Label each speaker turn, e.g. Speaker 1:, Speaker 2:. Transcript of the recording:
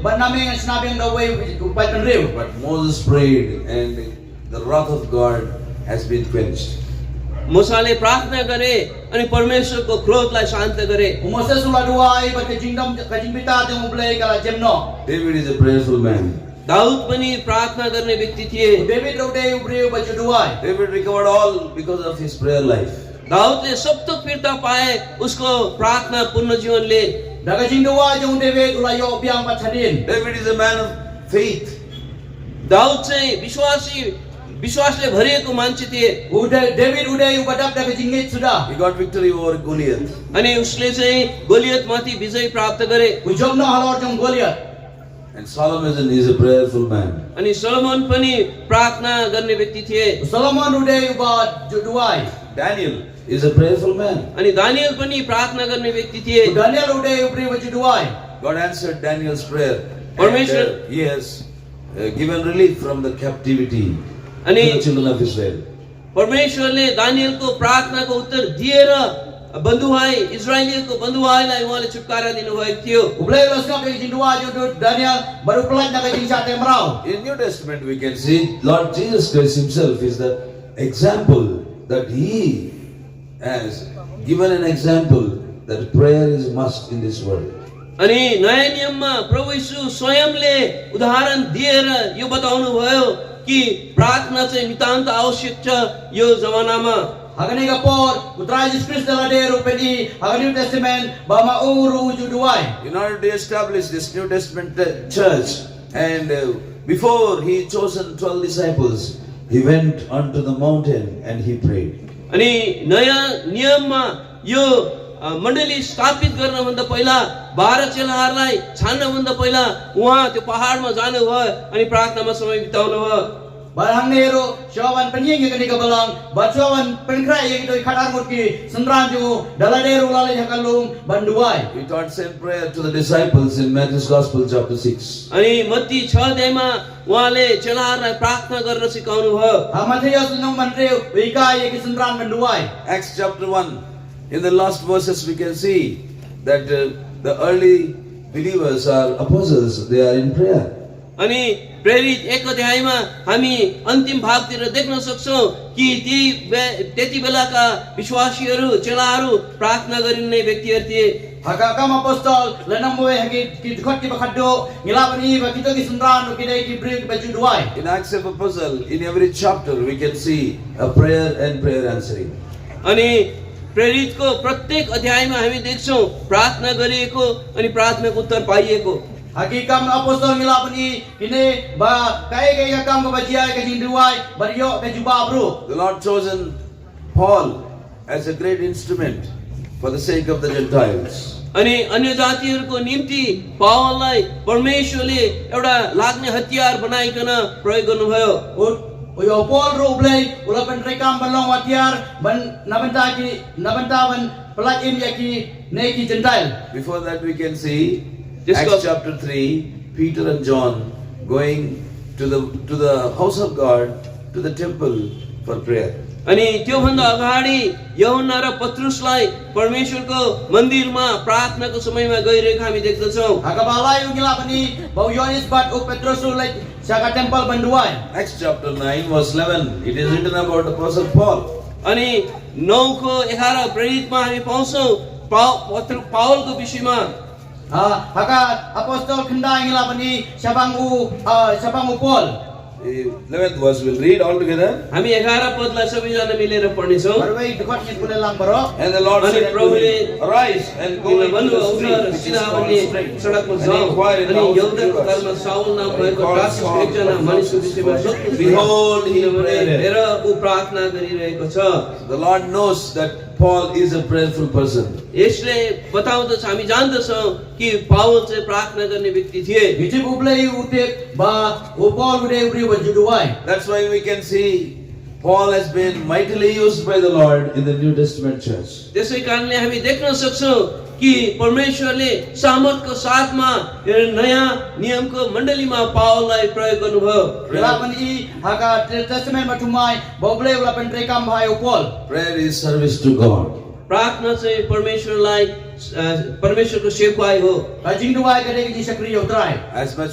Speaker 1: But namin ang sinabi ang the way which upal ng riw.
Speaker 2: But Moses prayed, and the wrath of God has been quenched.
Speaker 3: Musale प्रार्थना गरे अनि परमेश्वरको क्रोधलाई शान्त गरे
Speaker 1: Umoses ula dua ay pagka jingdam kajimbita at yung ublay kala jemno.
Speaker 2: David is a prayerful man.
Speaker 3: Dawood पनि प्रार्थना गर्ने व्यक्ति थिए
Speaker 1: David raw day ubriw ba juduay.
Speaker 2: David recovered all because of his prayer life.
Speaker 3: दाउदले सब थोक फिर्ता पाए उसको प्रार्थना पूर्ण जीवनले
Speaker 1: Daga jingduwa yung David ula yo biang patadin.
Speaker 2: David is a man of faith.
Speaker 3: Dawood चाहिँ विश्वासी विश्वासले भरिएको मान्छे थिए
Speaker 1: Uday David uday ubadap daga jingit sudah.
Speaker 2: He got victory over Goliath.
Speaker 3: अनि उसले चाहिँ गोलियतमाथि विजय प्राप्त गरे
Speaker 1: Ujog na halor yung Goliath.
Speaker 2: And Solomon is a prayerful man.
Speaker 3: अनि सलोमन पनि प्रार्थना गर्ने व्यक्ति थिए
Speaker 1: Solomon uday uba juduay.
Speaker 2: Daniel is a prayerful man.
Speaker 3: अनि दानियल पनि प्रार्थना गर्ने व्यक्ति थिए
Speaker 1: Daniel uday ubriw ba juduay.
Speaker 2: God answered Daniel's prayer.
Speaker 3: Permission.
Speaker 2: And, uh, he has uh, given relief from the captivity to
Speaker 3: Ani-
Speaker 2: the children of Israel.
Speaker 3: परमेश्वरले दानियलको प्रार्थनाको उत्तर दिएर बन्धुभाइ इजरायलीको बन्धुभाइलाई उहाँले छुटकारा दिनुभएको थियो
Speaker 1: Ublay ulas nga kay jingduwa yung Daniel barupelat na kay jingsa temraw.
Speaker 2: In New Testament, we can see Lord Jesus Christ Himself is the example that He has given an example that prayer is must in this world.
Speaker 3: अनि नयाँ नियममा प्रभु यीशु स्वयंले उदाहरण दिएर यो बताउनु भयो कि प्रार्थना चाहिँ नितान्त आवश्यक छ यो जमानामा
Speaker 1: Hagani ka por, putra Jesus Christ na ladero pedi, hagani New Testament, ba mauru juduay.
Speaker 2: In order to establish this New Testament uh, church, and uh, before He chosen twelve disciples, He went unto the mountain and He prayed.
Speaker 3: अनि नयाँ नियममा यो अ, मण्डली स्थापित गर्नभन्दा पहिला बाह्र चेलाहरूलाई छान्नभन्दा पहिला उहाँ त्यो पहाडमा जानुभयो अनि प्रार्थनामा समय बिताउनु भयो
Speaker 1: Barang nero, syawan penying yang kini kebelang, bat syawan penkrai yang itu kadar mutki, sendran ju, daladero lalai hakalung, banduai.
Speaker 2: He taught same prayer to the disciples in Matthew's Gospel, chapter six.
Speaker 3: अनि मत्ती छ अध्यायमा उहाँले चेलाहरूलाई प्रार्थना गर्न सिकाउनु भयो
Speaker 1: Amatria senang mandreu, wika yang sendran banduai.
Speaker 2: Acts chapter 1, in the last verses, we can see that uh, the early believers are apostles, they are in prayer.
Speaker 3: अनि प्रेरित एक अध्यायमा हामी अन्तिम भागतिर देख्न सक्छौँ कि ती बे- त्यति बेलाका विश्वासीहरू चेलाहरू प्रार्थना गरिने व्यक्तिहरू थिए
Speaker 1: Hakakam apostol, lenang mue hagi kidkot ki bakado, ngilapan i bakito ki sendran, kidai ki beri ki baju duai.
Speaker 2: In Acts of Apostle, in every chapter, we can see a prayer and prayer answering.
Speaker 3: अनि प्रेरितको प्रत्येक अध्यायमा हामी देख्छौँ प्रार्थना गरिएको अनि प्रार्थनाको उत्तर पाइएको
Speaker 1: Hakikam apostol ngilapan i, kini ba kai kai hakam ka bajia ka jinduai, bariok ka juba bro.
Speaker 2: The Lord chosen Paul as a great instrument for the sake of the Gentiles.
Speaker 3: अनि अन्य जातिहरूको निम्ति पावललाई परमेश्वरले एउटा लाग्ने हतियार बनाइकन प्रयोग गर्नुभयो
Speaker 1: Uyo Paul Rublay, ula pen rekam balong watiar, ban nabenta ki nabenta ban pelat im yaki neki jentail.
Speaker 2: Before that, we can see
Speaker 3: Yes,
Speaker 2: Acts
Speaker 3: God.
Speaker 2: chapter 3, Peter and John going to the, to the house of God, to the temple for prayer.
Speaker 3: अनि त्योभन्दा अगाडि यहुना र पत्रुसलाई परमेश्वरको मन्दिरमा प्रार्थनाको समयमा गइरहेको हामी देख्दछौँ
Speaker 1: Hakabalay yung ngilapani, bau Yohanes bat u Petrus ulay saka temple banduay.
Speaker 2: Acts chapter 9, verse 11, it is written about the Apostle Paul.
Speaker 3: अनि नौको एघार प्रेरितमा हामी पाउँछौँ पाउ पत्र पावलको विषयमा
Speaker 1: Ah, haka apostol kenda ngilapani sabang u ah, sabang u Paul.
Speaker 2: The 11th verse, we'll read all together.
Speaker 3: हामी एघार पदलाई सबैजना मिलेर पढ्नेछौँ
Speaker 1: Barway dekat ni kuda lang baro.
Speaker 2: And the Lord
Speaker 3: अनि
Speaker 2: said unto
Speaker 3: प्रभुले
Speaker 2: him, Arise and go
Speaker 3: तिमीलाई
Speaker 2: into the
Speaker 3: भन्नुभयो, उठ र
Speaker 2: street which is
Speaker 3: सिधा
Speaker 2: called
Speaker 3: भन्ने
Speaker 2: Straight,
Speaker 3: सडकमा जाऊ
Speaker 2: and inquire in the
Speaker 3: अनि
Speaker 2: house of
Speaker 3: यहुदाको घरमा
Speaker 2: Judas.
Speaker 3: साउल नाम
Speaker 2: And he
Speaker 3: भएको
Speaker 2: calls
Speaker 3: दासको
Speaker 2: Saul
Speaker 3: एकजना
Speaker 2: from
Speaker 3: मानिसको
Speaker 2: the
Speaker 3: विषयमा
Speaker 2: house of
Speaker 3: सोध्नु
Speaker 2: Judas. Behold, he
Speaker 3: किनभने
Speaker 2: prayed.
Speaker 3: हेर ऊ प्रार्थना गरिरहेको छ
Speaker 2: The Lord knows that Paul is a prayerful person.
Speaker 3: यसले बताउँदछ हामी जान्दछौँ कि पावल चाहिँ प्रार्थना गर्ने व्यक्ति थिए
Speaker 1: Bijib ublay utip ba u Paul uday ubri banduay.
Speaker 2: That's why we can see Paul has been mightily used by the Lord in the New Testament church.
Speaker 3: त्यसै कारणले हामी देख्न सक्छौँ कि परमेश्वरले सामर्थको साथमा यो नयाँ नियमको मण्डलीमा पावललाई प्रयोग गर्नुभयो
Speaker 1: Ngilapani i haka testament batumai, bau ublay ula pen rekam bahai u Paul.
Speaker 2: Prayer is service to God.
Speaker 3: प्रार्थना चाहिँ परमेश्वरलाई
Speaker 4: अ, परमेश्वरको सेवक आयो हो
Speaker 3: Rajin dua ke dia kerja sekali yang terai.
Speaker 2: As much